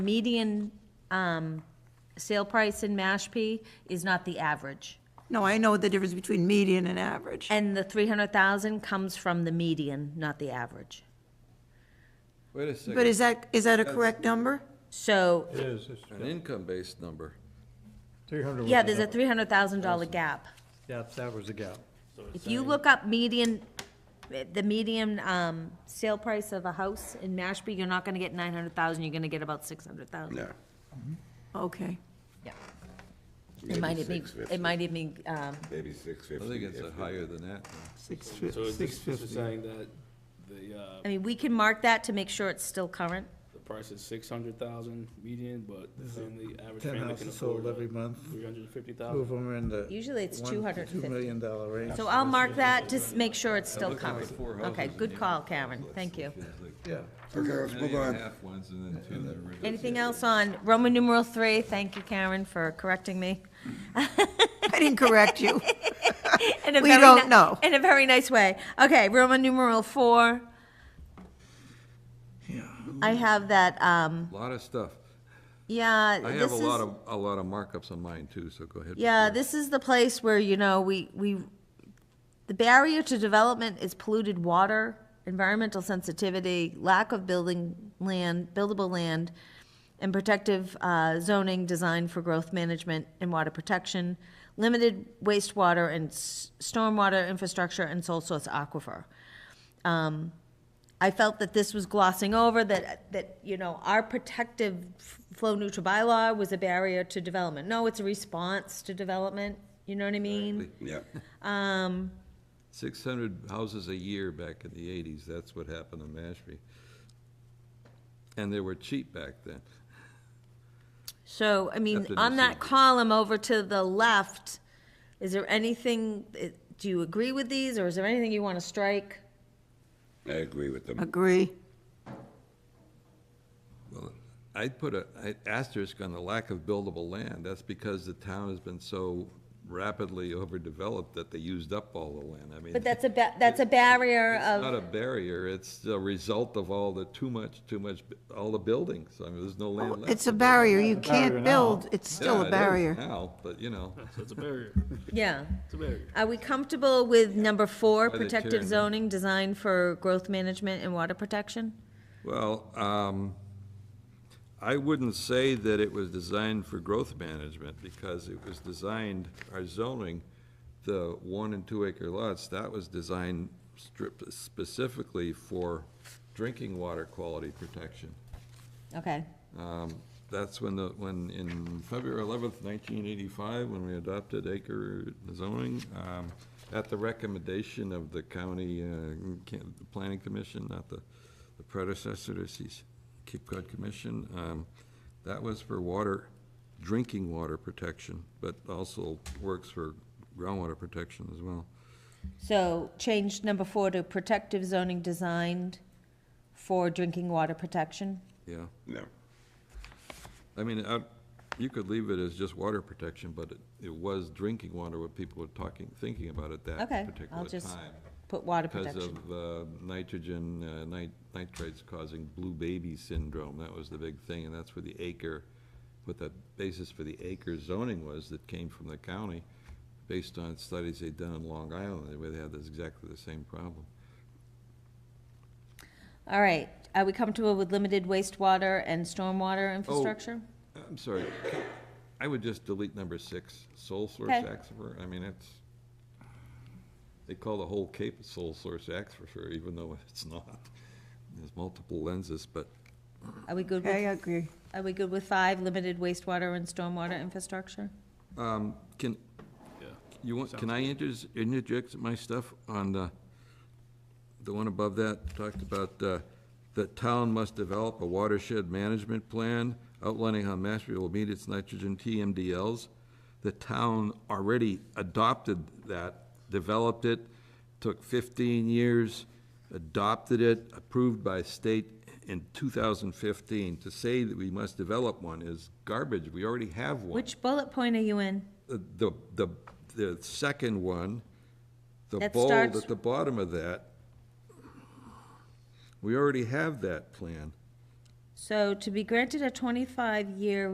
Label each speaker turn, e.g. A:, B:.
A: median um, sale price in Mashpee is not the average.
B: No, I know the difference between median and average.
A: And the 300,000 comes from the median, not the average.
C: Wait a second.
B: But is that, is that a correct number?
A: So,
D: It is, it's
C: An income-based number.
D: three hundred.
A: yeah, there's a $300,000 gap.
D: Yeah, that was the gap.
A: If you look up median, the median um, sale price of a house in Mashpee, you're not going to get 900,000, you're going to get about 600,000.
E: No.
B: Okay.
A: Yeah. It
E: maybe
A: might even, be-
E: 650,
A: it might even, be, um,
E: Maybe six
C: I
E: fifty.
C: think it's a higher than that.
B: Six
F: So
B: fifty.
F: is this this is saying that the, uh,
A: I mean, we can mark that to make sure it's still current.
F: the price is six hundred thousand median, but the family, average
D: Ten
F: family can
D: houses sold every
F: afford uh,
D: month,
F: three hundred and fifty
D: two of
F: thousand?
D: them are in the.
A: Usually it's
D: one to
A: 250.
D: Two million dollar range.
A: So I'll mark that to s- make sure it's still
C: Look at the
A: covered.
C: four houses
A: Okay,
C: in
A: good
C: Avon.
A: call, Karen, thank you.
C: It's like
D: Yeah,
E: Okay, let's move
C: Million and a
E: on.
C: half ones and then two that are regular.
A: Anything else on Roman numeral three? Thank you, Karen, for correcting me.
B: I didn't correct you.
A: In a
B: We
A: very
B: don't
A: ni-
B: know.
A: In a very nice way. Okay, Roman numeral four. I have that, um,
C: Lot of stuff.
A: yeah,
C: I
A: this
C: have a lot
A: is,
C: of, a lot of markups on mine too, so go ahead.
A: yeah, this is the place where, you know, we, we, the barrier to development is polluted water, environmental sensitivity, lack of building land, buildable land, and protective uh, zoning designed for growth management and water protection, limited wastewater and s- stormwater infrastructure, and sole source aquifer. Um, I felt that this was glossing over that that you know our protective f- flow neutral bylaw was a barrier to development. No, it's a response to development. You know what I mean?
E: Yeah.
C: Six hundred houses a year back in the eighties, that's what happened in Mashpee. And they were cheap back then.
A: So, I mean,
C: After the
A: on that
C: decision.
A: column over to the left, is there anything, eh, do you agree with these, or is there anything you want to strike?
E: I agree with them.
B: Agree.
C: Well, I'd put a, an asterisk on the lack of buildable land. That's because the town has been so rapidly overdeveloped that they used up all the land. I mean.
A: But that's a, ba- that's a barrier
C: It's
A: of,
C: not a barrier, it's a result of all the too much, too much, all the buildings, I mean, there's no land left.
B: Oh, It's a barrier. You can't build. It's still
C: Yeah, it
B: a
C: is
B: barrier.
C: Now, but you know,
F: So it's a barrier,
A: yeah.
F: it's a barrier.
A: Are we comfortable with number four,
C: By the
A: protective
C: chairman.
A: zoning designed for growth management and water protection?
C: well, um, I wouldn't say that it was designed for growth management, because it was designed, our zoning, the one and two acre lots, that was designed strip specifically for drinking water quality protection.
A: Okay,
C: Um, That's when the, when in February eleventh, nineteen eighty-five, when we adopted acre zoning, um, at the recommendation of the county, uh, can- the planning commission, not the the predecessor to Cape Cape Cod Commission, um, that was for water, drinking water protection, but also works for groundwater protection as well.
A: so change number four to protective zoning designed for drinking water protection?
C: Yeah,
E: No.
C: I mean, I, you could leave it as just water protection, but it, it was drinking water, what people were talking, thinking about at that
A: Okay, I'll
C: particular
A: just
C: time.
A: put water
C: Because
A: protection.
C: of uh, nitrogen, uh, nit- nitrates causing blue baby syndrome, that was the big thing, and that's where the acre, what the basis for the acre zoning was that came from the county, based on studies they'd done in Long Island, where they had this, exactly the same problem.
A: All right, are we comfortable with limited wastewater and
C: Oh.
A: stormwater infrastructure?
C: I'm sorry, I would just delete number six, sole source
A: Okay.
C: aquifer, I mean, it's, they call the whole Cape a sole source aquifer, even though it's not. There's multiple lenses, but
A: Are we good
B: I
A: with,
B: agree.
A: are we good with five, limited wastewater and stormwater infrastructure?
C: Um, Can, you want, can I inters- interject my stuff on the, the one above that, talked about, uh, the town must develop a watershed management plan outlining how Mashpee will meet its nitrogen TMDLs. The town already adopted that, developed it, took fifteen years, adopted it, approved by state in two thousand fifteen. To say that we must develop one is garbage, we already have one
A: Which bullet point are you in?
C: the, the, the second one, the
A: That
C: bold
A: starts-
C: at the bottom of that, we already have that plan.
A: So to be granted a twenty-five year